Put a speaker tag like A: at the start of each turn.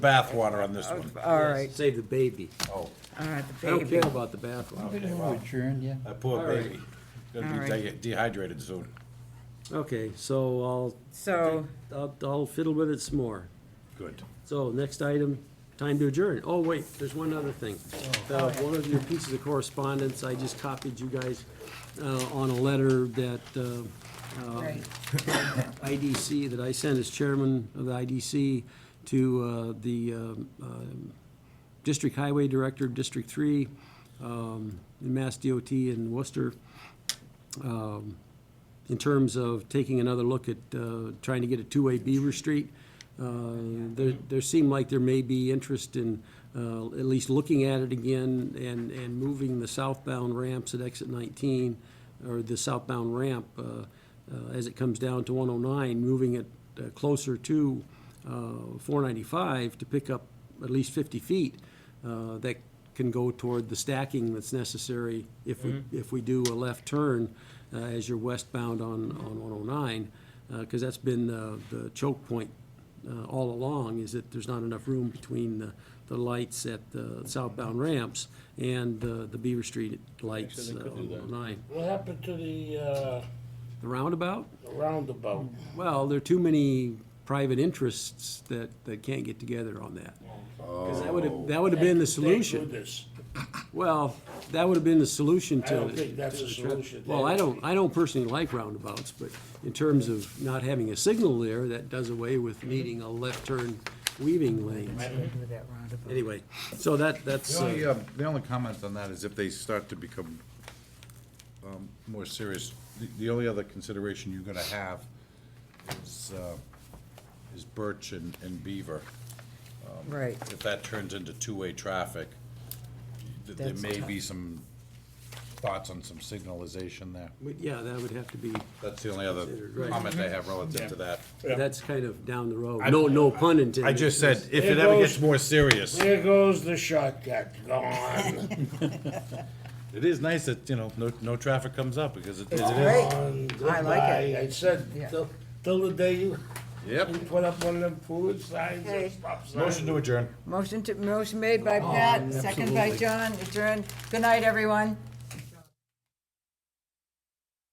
A: bathwater on this one.
B: All right,
C: Save the baby.
A: Oh,
B: all right, the
C: I don't care
B: baby.
C: about the bathroom.
A: okay, well,
D: Adjourned, yeah.
A: that poor
C: All right.
A: baby. Gonna
B: All
A: be
B: right.
A: de- dehydrated soon.
C: Okay, so I'll,
B: So,
C: I'll, I'll fiddle with it some more.
A: Good.
C: So, next item, time to adjourn. Oh, wait, there's one other thing.
B: Oh,
C: Uh, one of your pieces of correspondence, I just copied you guys, uh, on a letter that, uh,
B: right,
C: IDC, that I sent as chairman of the IDC to uh, the um, um, District Highway Director of District Three, um, in Mass DOT in Worcester, um, in terms of taking another look at uh, trying to get a two-way Beaver Street. Uh, There, there seemed like there may be interest in uh, at least looking at it again and, and moving the southbound ramps at exit 19, or the southbound ramp uh, uh, as it comes down to 109, moving it uh, closer to uh, 495 to pick up at least 50 feet uh, that can go toward the stacking that's necessary if we, if we do a left turn uh, as you're westbound on, on 109, because that's been uh, the choke point uh, all along, is that there's not enough room between the, the lights at the southbound ramps and uh, the Beaver Street lights uh, on 109.
E: What happened to the uh,
C: The roundabout?
E: roundabout?
C: Well, there are too many private interests that, that can't get together on that. Because that would have, that would have been the
E: They do
C: solution.
E: this.
C: Well, that would have been the solution
E: I
C: to.
E: don't think that's
C: to
E: a
C: the traffic.
E: solution.
C: Well, I don't, I don't personally like roundabouts, but in terms of not having a signal there, that does away with needing a left turn weaving lane.
B: with that roundabout.
C: Anyway, so that, that's,
A: The
C: uh,
A: only, um, the only comment on that is if they start to become um, more serious, the- the only other consideration you're gonna have is, uh, is Birch and and Beaver.
B: Right,
A: If that turns into two-way traffic, th- there
B: That's
A: may
B: tough.
A: be some thoughts on some signalization there.
C: but yeah, that would have to be,
A: That's the only other
C: Considered, right.
A: comment I have relative to that.
C: that's kind of down the road. No, no pun intended.
A: I just said, if
E: There
A: it ever
E: goes-
A: gets more serious,
E: There goes the shortcut, gone,
A: it is nice that, you know, no, no traffic comes up because it it
B: It's
A: is.
B: great.
E: gone,
B: I like it.
E: goodbye. I said,
B: Yeah.
E: till, till the day you
A: Yep.
E: you put up one of them food signs
B: Okay.
E: or stop
A: Motion
E: signs.
A: to adjourn.
B: Oh, motion to, motion made by Pat, second by John, adjourned. Good night, everyone.